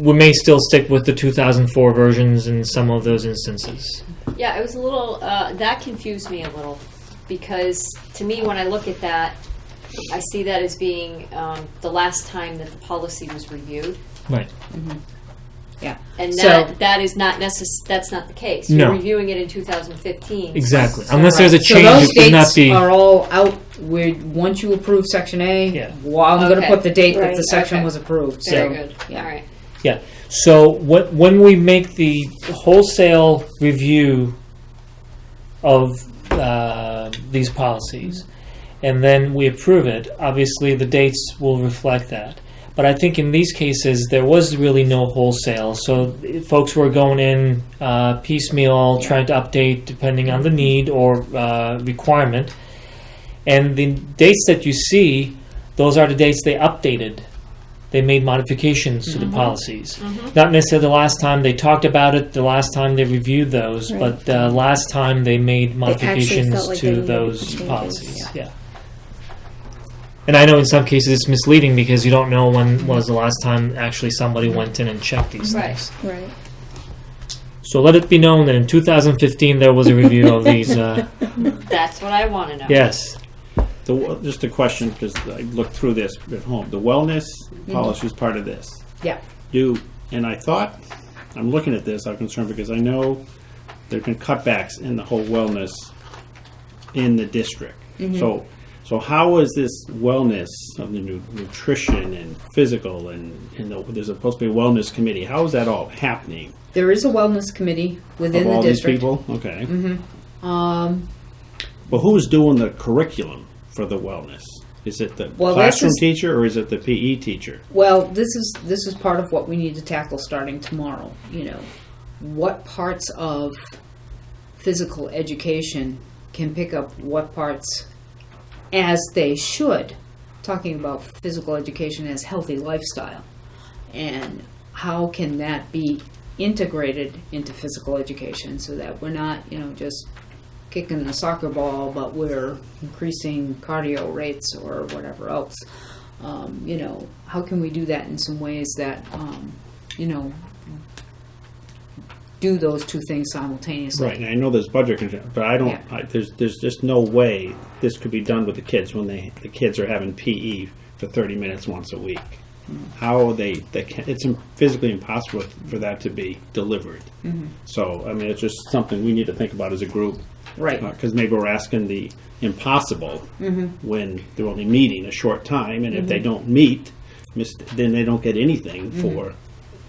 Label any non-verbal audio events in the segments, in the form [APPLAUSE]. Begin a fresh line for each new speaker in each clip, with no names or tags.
we may still stick with the 2004 versions in some of those instances.
Yeah, it was a little, uh, that confused me a little, because to me, when I look at that, I see that as being um, the last time that the policy was reviewed.
Right.
Mm-hmm. Yeah.
And
So-
that, that is not necess, that's not the case.
No.
You're reviewing it in 2015.
Exactly.
So-
Unless there's a
So
change,
those
it could not
dates
be.
are all out, we once you approve section A,
Yeah.
well, I'm gonna
Okay.
put the date that
Right.
the section
Okay.
was approved, so.
Very good, all
yeah.
right.
Yeah. So what when we make the wholesale review of uh, these policies, and then we approve it, obviously the dates will reflect that. But I think in these cases there was really no wholesale, so folks were going in uh, piecemeal, trying to update depending on the need or uh, requirement. And the dates that you see, those are the dates they updated. They made modifications to
Mm-hmm.
the policies. Not necessarily the last time they talked about it, the last time they reviewed those,
Right.
but uh, last time they made modifications
felt like they
to
needed
those
changes.
policies. Yeah. And I know in some cases it's misleading because you don't know when was the last time actually somebody went in and checked these
Right.
things.
Right.
So let it be known that in 2015 there was a review of these.
[LAUGHS]
Uh,
That's what I want to know.
yes.
The, w- just a question, because I looked through this at home. The wellness
Mm-hmm.
policy is part of this.
Yeah.
Do, and I thought, I'm looking at this, I'm concerned because I know there've been cutbacks in the whole wellness in the district.
Mm-hmm.
So, so how is this wellness of the nu- nutrition and physical and, and the, there's supposed to be a wellness committee? How is that all happening?
There is a wellness committee within
Of
the
all these
district. Mm-hmm.
people? Okay.
Um,
But who's doing the curriculum for the wellness? Is it the
Well, this
classroom
is-
teacher or is it the PE teacher?
Well, this is, this is part of what we need to tackle starting tomorrow, you know. What parts of physical education can pick up what parts as they should? Talking about physical education as healthy lifestyle. And how can that be integrated into physical education so that we're not, you know, just kicking the soccer ball, but we're increasing cardio rates or whatever else. Um, you know, how can we do that in some ways that, um, you know, do those two things simultaneously?
Right, and I know there's budget constraints, but I don't,
Yeah.
I, there's, there's just no way this could be done with the kids when they, the kids are having PE for thirty minutes once a week.
Mm-hmm.
How are they, they can, it's im- physically impossible for that to be delivered.
Mm-hmm.
So, I mean, it's just something we need to think about as a group.
Right.
Because maybe we're asking the impossible
Mm-hmm.
when they're only meeting a short time, and if they don't meet, mis- then they don't get anything for,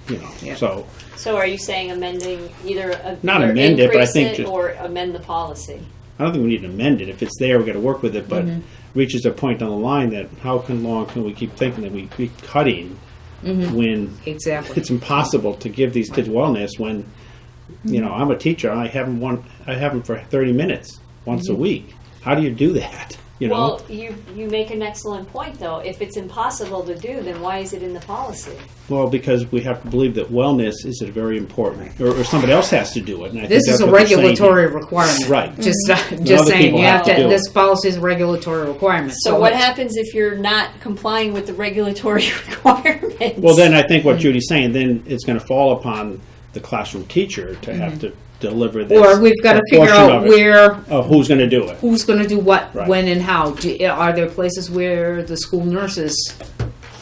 you know,
Mm-hmm. Yeah.
so.
So are you saying amending either? a-
Not
either
amend it, but I
increase
think
it
just-
Or amend the policy?
I don't think we need to amend it. If it's there, we've got to work with it, but
Mm-hmm.
reaches a point on the line that how can long can we keep thinking that we keep cutting when
Mm-hmm. Exactly.
it's impossible to give these kids wellness when you
Mm-hmm.
know, I'm a teacher, I have them one I have them for thirty minutes once
Mm-hmm.
a week. How do you do that? [LAUGHS] You know?
Well, you, you make an excellent point, though. If it's impossible to do, then why is it in the policy?
Well, because we have to believe that wellness is a very important or, or somebody else has to do it. And I
This
think
is
that's
a
what they're saying here.
regulatory requirement.
Right.
Just,
Mm-hmm.
just
other
saying,
people
you
have
have
to
to,
do it.
this policy is a regulatory requirement.
So what
it's-
happens if you're not complying with the regulatory [LAUGHS] requirements?
Well, then I think what
Mm.
Judy's saying, then it's going to fall upon the classroom teacher to have to deliver this.
Mm-hmm. Or we've got to figure
portion
out
of it,
where,
of who's going to do it.
who's going to do what,
Right.
when, and how. Do, are there places where the school nurses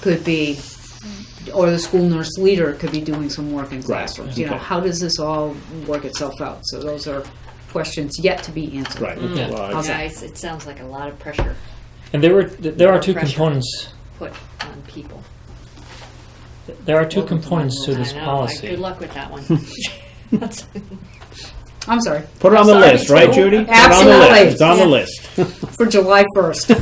could be, or the school nurse leader could be doing some work in classrooms? You know,
okay.
how does this all work itself out? So those are questions yet to be answered.
Right. Okay. Well, I-
How's that?
Guys, it sounds like a lot of pressure
And there were there are two
Pressure.
components.
put on people.
There are two components to this
I know,
policy.
Good luck with that one. That's-
[LAUGHS]
[LAUGHS]
[LAUGHS]
I'm sorry,
Put it on the
Sorry,
list, right,
Joe.
Judy? Put it on the
Absolutely.
list. It's on the list.
for July [LAUGHS] 1st.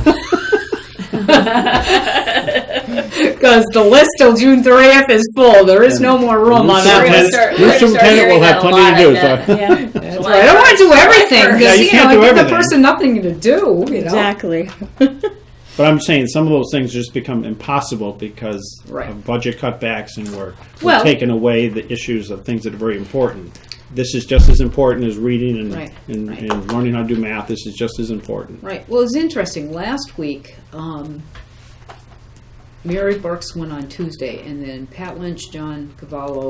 Because the list till June 30th is full. There is no more room on that
Superintendent-
list.
start- we're
Your
gonna start
superintendent
hearing
will
that
have
a
plenty to
lot,
do,
I bet.
so.
That's right. I don't want to do everything
Yeah,
because
you
you, know
can't
I
do
give the
everything.
person nothing to do. You know,
Exactly.
But I'm saying some of those things just become impossible because
Right.
of budget cutbacks and we're, we're
Well-
taking away the issues of things that are very important. This is just as important as reading and,
Right,
and,
right.
and learning how to do math. This is just as important.
right? Well, it's interesting. Last week, um, Mary Burks went on Tuesday, and then Pat Lynch, John Cavallo,